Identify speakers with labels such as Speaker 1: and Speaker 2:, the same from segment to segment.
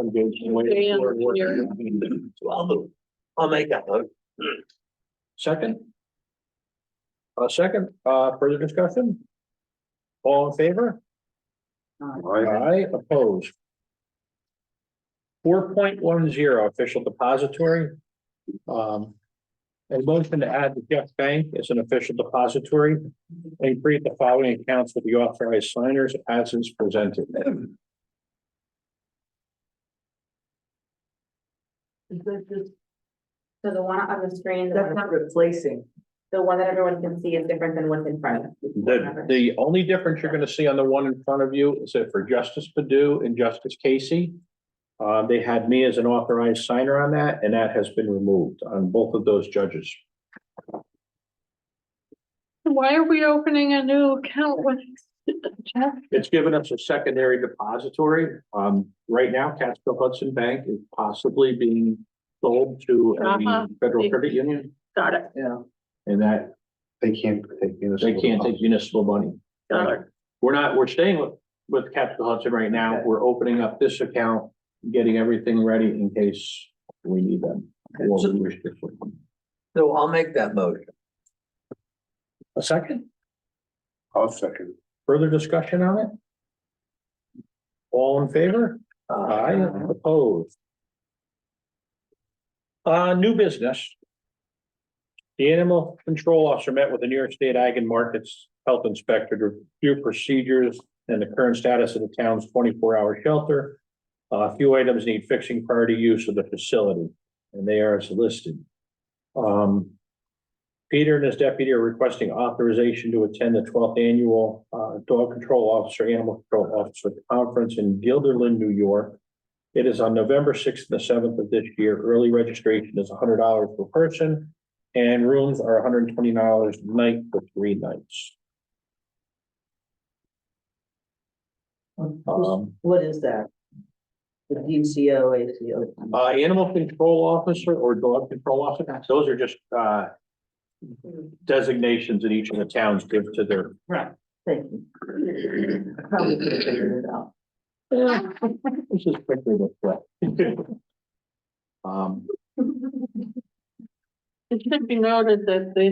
Speaker 1: engage in waiting
Speaker 2: Dan,
Speaker 1: for work.
Speaker 2: you're-
Speaker 1: So I'll move. I'll make that vote.
Speaker 3: Second? A second, uh, further discussion? All in favor? Aye, opposed. Four point one zero official depository. Um. A motion to add the Jeff Bank as an official depository and create the following accounts with the authorized signers as is presented.
Speaker 4: So the one on the screen, the
Speaker 5: That's
Speaker 4: one,
Speaker 5: not replacing.
Speaker 4: the one that everyone can see is different than what's in front of
Speaker 3: The, the only difference you're gonna see on the one in front of you is that for Justice Padu and Justice Casey. Uh, they had me as an authorized signer on that, and that has been removed on both of those judges.
Speaker 2: Why are we opening a new account with Jeff?
Speaker 3: It's given us a secondary depository. Um, right now, Catskill Hudson Bank is possibly being sold to
Speaker 2: Uh-huh.
Speaker 3: a federal credit union,
Speaker 2: Got it,
Speaker 5: Yeah.
Speaker 3: and that
Speaker 1: They can't take
Speaker 3: they can't take municipal money.
Speaker 2: got it.
Speaker 3: We're not, we're staying with, with Capitol Hudson right now. We're opening up this account, getting everything ready in case we need them. or we wish to flip them.
Speaker 1: So I'll make that motion.
Speaker 3: A second,
Speaker 1: I'll second.
Speaker 3: further discussion on it? All in favor?
Speaker 1: Uh,
Speaker 3: Aye, opposed. Uh, new business. The animal control officer met with the New York State Ag and Markets Health Inspector to review procedures and the current status of the town's twenty-four hour shelter. Uh, A few items need fixing prior to use of the facility, and they are as listed. Um. Peter and his deputy are requesting authorization to attend the twelfth annual uh, Dog Control Officer, Animal Control Officer Conference in Guilderland, New York. It is on November sixth and the seventh of this year. Early registration is hundred dollars per person. And rooms are hundred and twenty dollars a night for three nights. Um,
Speaker 5: What is that? The DCO, ACO.
Speaker 3: uh, Animal Control Officer or Dog Control Officer, those are just uh, designations that each of the towns give to their
Speaker 5: Right. Thank you. I Probably could have figured it out.
Speaker 3: This is quickly the threat. Um,
Speaker 2: It should be noted that the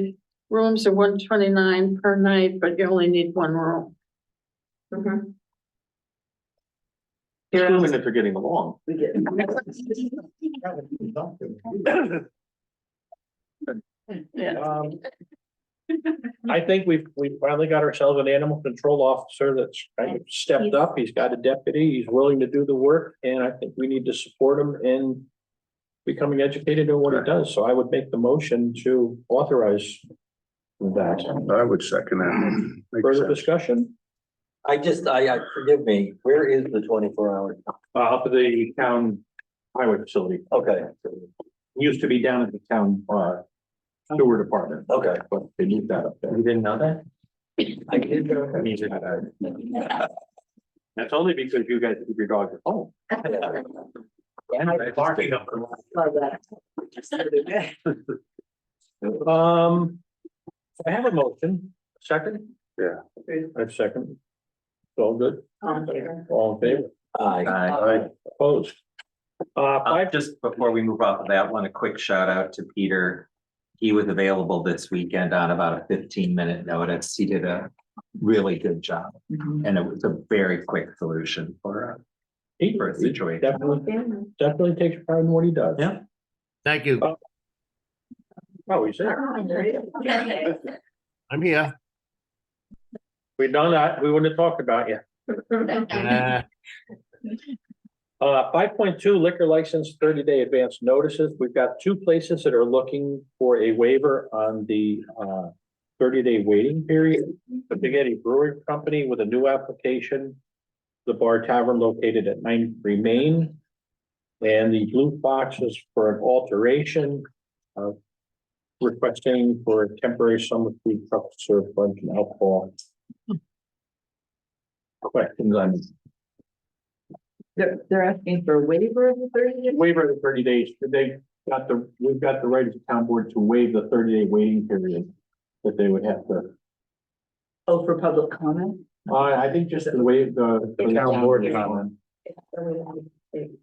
Speaker 2: rooms are one twenty-nine per night, but you only need one room.
Speaker 4: them.
Speaker 3: assuming that they're getting along.
Speaker 5: We get.
Speaker 2: Yeah.
Speaker 3: Um, I think we've, we finally got ourselves an animal control officer that's kind of stepped up. He's got a deputy. He's willing to do the work and I think we need to support him in becoming educated in what he does. So I would make the motion to authorize that.
Speaker 6: I would second that. Makes
Speaker 3: Further
Speaker 6: sense.
Speaker 3: discussion?
Speaker 1: I just, I, I, forgive me, where is the twenty-four hour?
Speaker 3: Uh, up at the town highway facility.
Speaker 1: Okay,
Speaker 3: used to be down at the town, uh, sewer department,
Speaker 1: okay.
Speaker 3: but they moved that up there.
Speaker 1: You didn't know that? I did.
Speaker 3: That's only because you guys keep your dogs at home.
Speaker 1: Barking up.
Speaker 5: Love that.
Speaker 3: Um, I have a motion, second?
Speaker 6: Yeah.
Speaker 3: I have second. It's all good,
Speaker 4: Um, here.
Speaker 3: all in favor,
Speaker 1: Aye.
Speaker 6: Aye.
Speaker 3: opposed? Uh,
Speaker 7: Uh,
Speaker 3: five,
Speaker 7: just before we move off of that one, a quick shout out to Peter. He was available this weekend on about a fifteen minute notice. He did a really good job
Speaker 5: Mm-hmm.
Speaker 7: and it was a very quick solution for a,
Speaker 3: he
Speaker 7: for a situation.
Speaker 3: definitely,
Speaker 4: Family.
Speaker 3: definitely takes pride in what he does.
Speaker 7: Yeah.
Speaker 8: Thank you.
Speaker 3: Oh, he's there.
Speaker 4: Oh, there it is. Okay.
Speaker 8: I'm here.
Speaker 3: We done that, we wouldn't have talked about you.
Speaker 8: Uh,
Speaker 3: Uh, five point two liquor license, thirty day advance notices. We've got two places that are looking for a waiver on the, uh, thirty day waiting period. The Spaghetti Brewing Company with a new application. The Bar Tavern located at nine Remain. And the Blue Fox is for an alteration of requesting for a temporary summer food truck to serve lunch and alcohol. Questions on
Speaker 5: They're, they're asking for a waiver of the thirty day?
Speaker 3: waiver of the thirty days, they got the, we've got the right as a town board to waive the thirty day waiting period that they would have to,
Speaker 5: Oh, for public comment?
Speaker 3: uh, I think just to waive the.
Speaker 4: The town
Speaker 3: board.
Speaker 4: Or we have-